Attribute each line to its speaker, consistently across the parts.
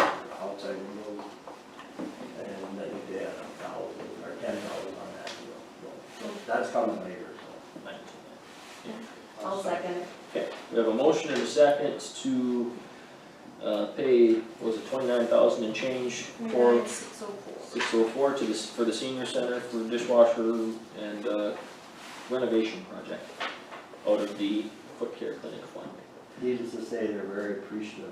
Speaker 1: outside windows. And I think they had a thousand or ten thousand on that deal. So that's coming later, so.
Speaker 2: I'll second.
Speaker 3: Okay, we have a motion and a second to, uh, pay, what was it twenty-nine thousand and change for
Speaker 2: Six oh four.
Speaker 3: six oh four to this, for the senior center for dishwasher and, uh, renovation project out of the foot care clinic fund.
Speaker 1: Needless to say, they're very appreciative.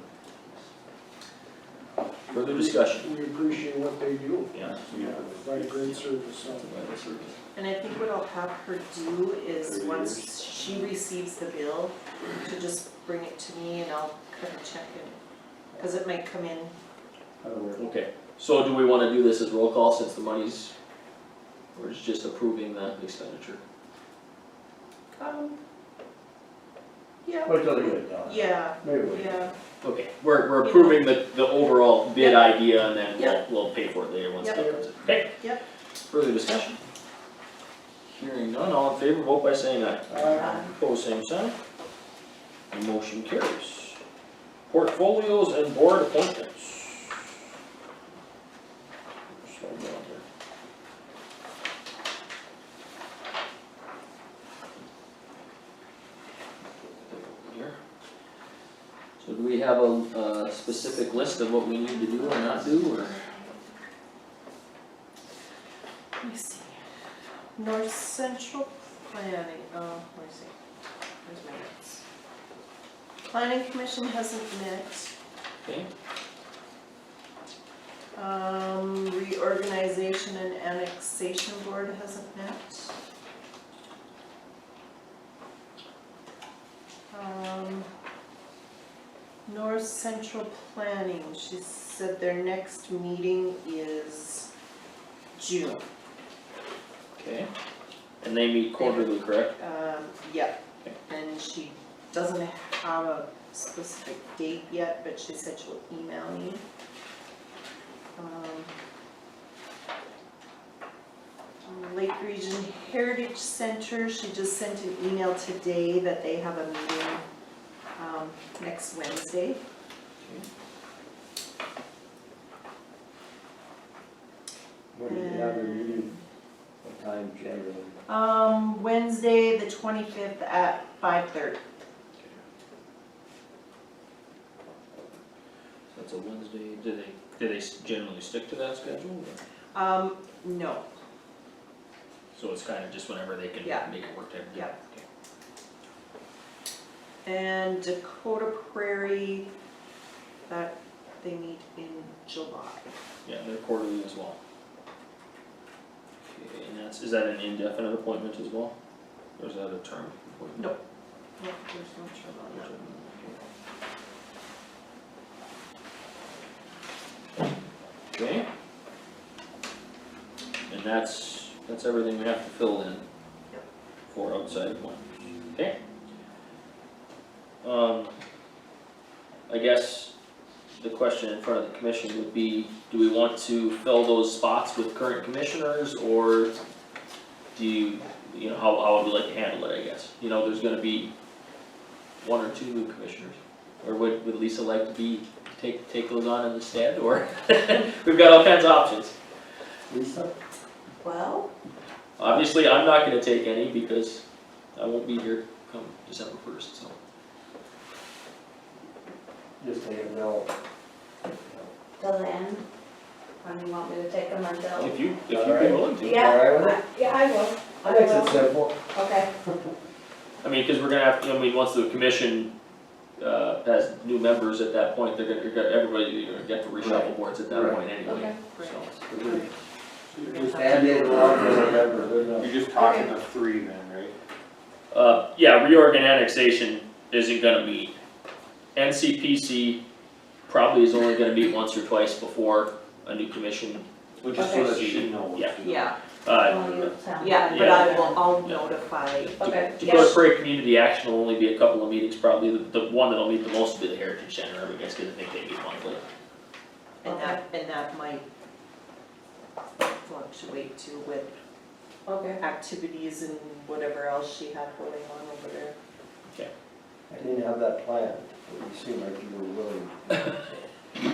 Speaker 3: Further discussion?
Speaker 4: We appreciate what they do,
Speaker 3: Yeah.
Speaker 4: provide great service, so.
Speaker 2: And I think what I'll have her do is, once she receives the bill, to just bring it to me and I'll kind of check it. Cause it might come in,
Speaker 1: However,
Speaker 3: Okay, so do we wanna do this as roll call since the money's, we're just approving the expenditure?
Speaker 2: um, yeah,
Speaker 1: Wait till they get it done.
Speaker 2: yeah,
Speaker 1: Maybe wait.
Speaker 2: yeah,
Speaker 3: Okay, we're, we're approving the, the overall bid idea and then
Speaker 2: Yeah.
Speaker 3: we'll, we'll pay for it later once that
Speaker 2: Yep.
Speaker 3: comes in. Okay.
Speaker 2: Yep.
Speaker 3: Further discussion? Hearing none, all in favor, vote by saying aye.
Speaker 2: uh,
Speaker 3: Opposed, same sign. The motion carries. Portfolios and board appointments. Slow down here. Here. So do we have a, a specific list of what we need to do or not do, or?
Speaker 2: let me see. North Central Planning, oh, let me see, where's my notes? Planning Commission hasn't met.
Speaker 3: Okay,
Speaker 2: Um, reorganization and annexation board hasn't met. Um, North Central Planning, she said their next meeting is June,
Speaker 3: okay. And they meet quarterly, correct?
Speaker 2: um, yeah. And she doesn't have a specific date yet, but she said she'll email me. Um, Lake Region Heritage Center, she just sent an email today that they have a meeting, um, next Wednesday.
Speaker 1: When do you have your meeting? What time generally?
Speaker 2: Um, Wednesday, the twenty-fifth at five thirty.
Speaker 3: That's a Wednesday, do they, do they s- generally stick to that schedule, or?
Speaker 2: Um, no,
Speaker 3: So it's kind of just whenever they can
Speaker 2: Yeah.
Speaker 3: make it work type of thing?
Speaker 2: Yeah. and Dakota Prairie, that they meet in July.
Speaker 3: Yeah, they're quarterly as well. Okay, and that's, is that an indefinite appointment as well? Or is that a term appointment?
Speaker 2: No. Yeah, there's no trouble on that.
Speaker 3: Okay. And that's, that's everything we have to fill in.
Speaker 2: Yep.
Speaker 3: For outside appointments, okay? Um, I guess the question in front of the commission would be, do we want to fill those spots with current commissioners or do you, you know, how, how would we like to handle it, I guess? You know, there's gonna be one or two new commissioners, or would, would Lisa like to be, take, take those on instead, or? We've got all kinds of options.
Speaker 1: Lisa?
Speaker 2: Well,
Speaker 3: Obviously, I'm not gonna take any because I won't be here come December first, so.
Speaker 1: Just say no.
Speaker 5: till then, when you want me to take them until?
Speaker 3: If you, if you'd be
Speaker 1: Alright.
Speaker 3: willing to.
Speaker 5: Yeah,
Speaker 1: All right.
Speaker 5: I- yeah, I will, I
Speaker 1: That makes it
Speaker 5: will,
Speaker 1: simple.
Speaker 5: okay,
Speaker 3: I mean, cause we're gonna have, to- I mean, once the commission, uh, has new members at that point, they're gonna, you're gonna, everybody, you're gonna get to reshuffle
Speaker 1: Right.
Speaker 3: boards at that
Speaker 1: Right.
Speaker 3: point anyway,
Speaker 5: Okay.
Speaker 3: so.
Speaker 2: Just
Speaker 1: And they allow for November, they're not-
Speaker 6: You're just talking to three then, right?
Speaker 3: Uh, yeah, reorg and annexation isn't gonna meet. NCPC probably is only gonna meet once or twice before a new commission,
Speaker 6: Well, just so that she knows.
Speaker 3: Yeah.
Speaker 6: you know.
Speaker 2: Yeah,
Speaker 1: Oh,
Speaker 5: well,
Speaker 3: uh,
Speaker 5: you sound.
Speaker 2: yeah, but I will, I'll notify,
Speaker 5: Okay,
Speaker 3: Dakota
Speaker 5: yes,
Speaker 3: Prairie Community Action will only be a couple of meetings, probably the, the one that'll meet the most will be the Heritage Center, I guess, cause I think they meet monthly.
Speaker 2: and that, and that might fluctuate too with
Speaker 5: okay,
Speaker 2: activities and whatever else she had going on over there.
Speaker 1: I didn't have that planned, but you seem like you were willing.